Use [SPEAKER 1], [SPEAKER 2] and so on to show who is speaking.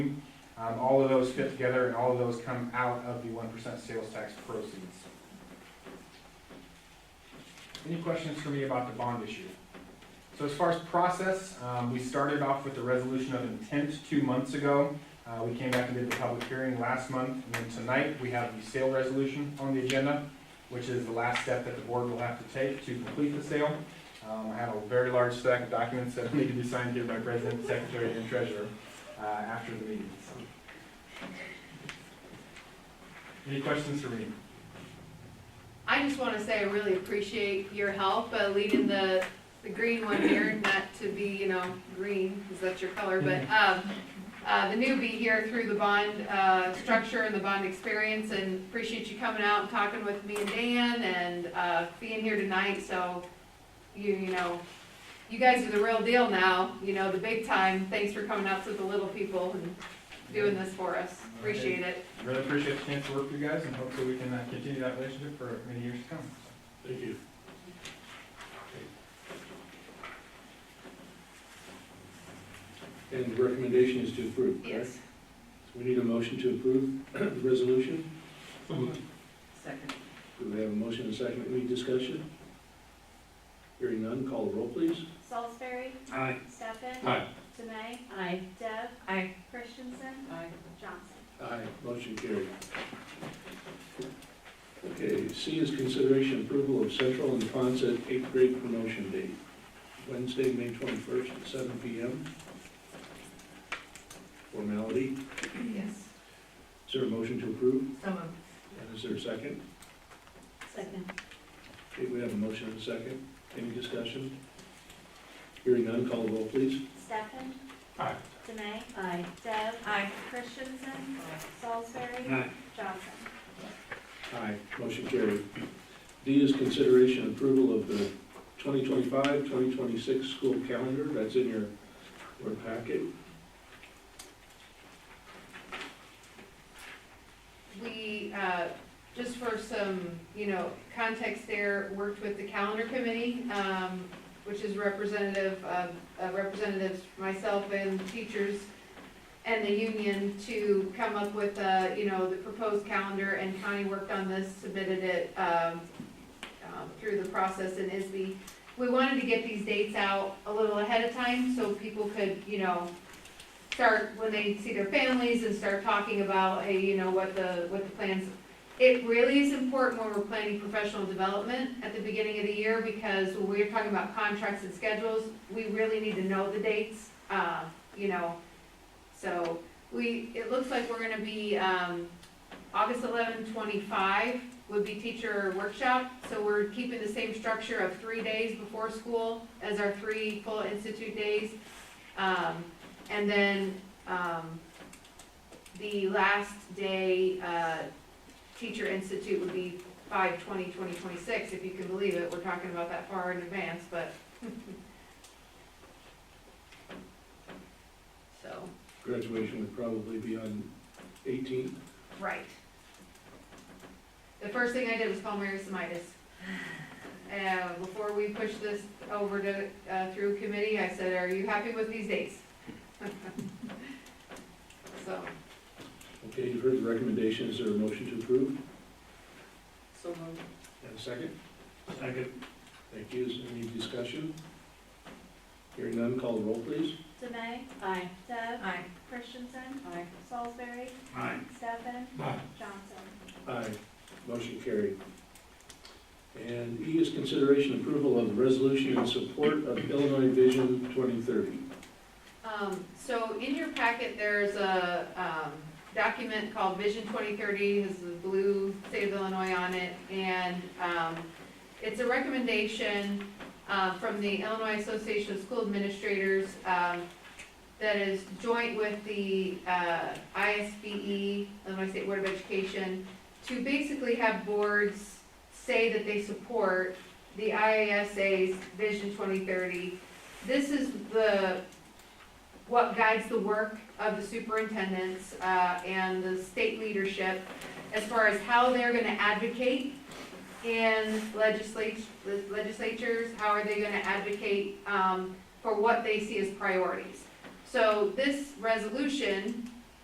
[SPEAKER 1] Um, all of those fit together and all of those come out of the one percent sales tax proceeds. Any questions for me about the bond issue? So as far as process, um, we started off with the resolution of intent two months ago. Uh, we came back and did the public hearing last month, and then tonight, we have the sale resolution on the agenda, which is the last step that the board will have to take to complete the sale. Um, I have a very large stack of documents that need to be signed here by president, secretary, and treasurer, uh, after the meeting, so. Any questions for me?
[SPEAKER 2] I just want to say I really appreciate your help uh, leading the, the green one here, not to be, you know, green, because that's your color, but, um, uh, the newbie here through the bond, uh, structure and the bond experience, and appreciate you coming out and talking with me and Dan, and, uh, being here tonight, so, you, you know, you guys are the real deal now, you know, the big time, thanks for coming out to the little people and doing this for us, appreciate it.
[SPEAKER 1] Really appreciate the chance to work with you guys, and hopefully we can uh, continue that relationship for many years to come.
[SPEAKER 3] Thank you. And the recommendation is to approve, correct?
[SPEAKER 2] Yes.
[SPEAKER 3] So we need a motion to approve the resolution.
[SPEAKER 4] Second.
[SPEAKER 3] Do we have a motion and a second? Any discussion? Hearing none, call the roll, please.
[SPEAKER 5] Salisbury.
[SPEAKER 3] Aye.
[SPEAKER 5] Stefan.
[SPEAKER 3] Aye.
[SPEAKER 5] Demae.
[SPEAKER 4] Aye.
[SPEAKER 5] Deb.
[SPEAKER 4] Aye.
[SPEAKER 5] Christensen.
[SPEAKER 4] Aye.
[SPEAKER 5] Johnson.
[SPEAKER 3] Aye, motion carried. Okay, C is consideration approval of Central and Ponset eighth grade promotion date, Wednesday, May twenty-first at seven P M. Formality,
[SPEAKER 4] Yes.
[SPEAKER 3] is there a motion to approve?
[SPEAKER 4] So moved.
[SPEAKER 3] And is there a second?
[SPEAKER 4] Second.
[SPEAKER 3] Okay, we have a motion and a second. Any discussion? Hearing none, call the roll, please.
[SPEAKER 5] Stefan.
[SPEAKER 1] Aye.
[SPEAKER 5] Demae.
[SPEAKER 4] Aye.
[SPEAKER 5] Deb.
[SPEAKER 4] Aye.
[SPEAKER 5] Christensen. Salisbury.
[SPEAKER 3] Aye.
[SPEAKER 5] Johnson.
[SPEAKER 3] Aye, motion carried. D is consideration approval of the 2025-2026 school calendar, that's in your, your packet.
[SPEAKER 2] We, uh, just for some, you know, context there, worked with the calendar committee, um, which is representative of, uh, representatives, myself and teachers and the union to come up with, uh, you know, the proposed calendar and Connie worked on this, submitted it, um, um, through the process in ISB. We wanted to get these dates out a little ahead of time so people could, you know, start when they see their families and start talking about, hey, you know, what the, what the plans. It really is important when we're planning professional development at the beginning of the year because when we're talking about contracts and schedules, we really need to know the dates, uh, you know. So we, it looks like we're gonna be, um, August 11, 25 would be teacher workshop. So we're keeping the same structure of three days before school as our three full institute days. Um, and then, um, the last day, uh, Teacher Institute would be five twenty, twenty twenty-six, if you can believe it, we're talking about that far in advance, but. So,
[SPEAKER 3] Graduation would probably be on 18th.
[SPEAKER 2] right. The first thing I did was call Mary Semitis. Uh, before we push this over to, uh, through committee, I said, are you happy with these dates? So.
[SPEAKER 3] Okay, you've heard the recommendation, is there a motion to approve?
[SPEAKER 4] So moved.
[SPEAKER 3] And a second? Second. Thank you, is there any discussion? Hearing none, call the roll, please.
[SPEAKER 5] Demae.
[SPEAKER 4] Aye.
[SPEAKER 5] Deb.
[SPEAKER 4] Aye.
[SPEAKER 5] Christensen.
[SPEAKER 4] Aye.
[SPEAKER 5] Salisbury.
[SPEAKER 3] Aye.
[SPEAKER 5] Stefan.
[SPEAKER 3] Aye.
[SPEAKER 5] Johnson.
[SPEAKER 3] Aye, motion carried. And E is consideration approval of the resolution in support of Illinois Vision 2030.
[SPEAKER 2] Um, so in your packet, there's a, um, document called Vision twenty thirty, has the blue state of Illinois on it, and, um, it's a recommendation, uh, from the Illinois Association of School Administrators, um, that is joint with the, uh, ISBE, E, Illinois State Board of Education, to basically have boards say that they support the IASA's Vision twenty thirty. This is the what guides the work of the superintendents uh, and the state leadership as far as how they're going to advocate in legislat- legislatures, how are they going to advocate um, for what they see as priorities. So this resolution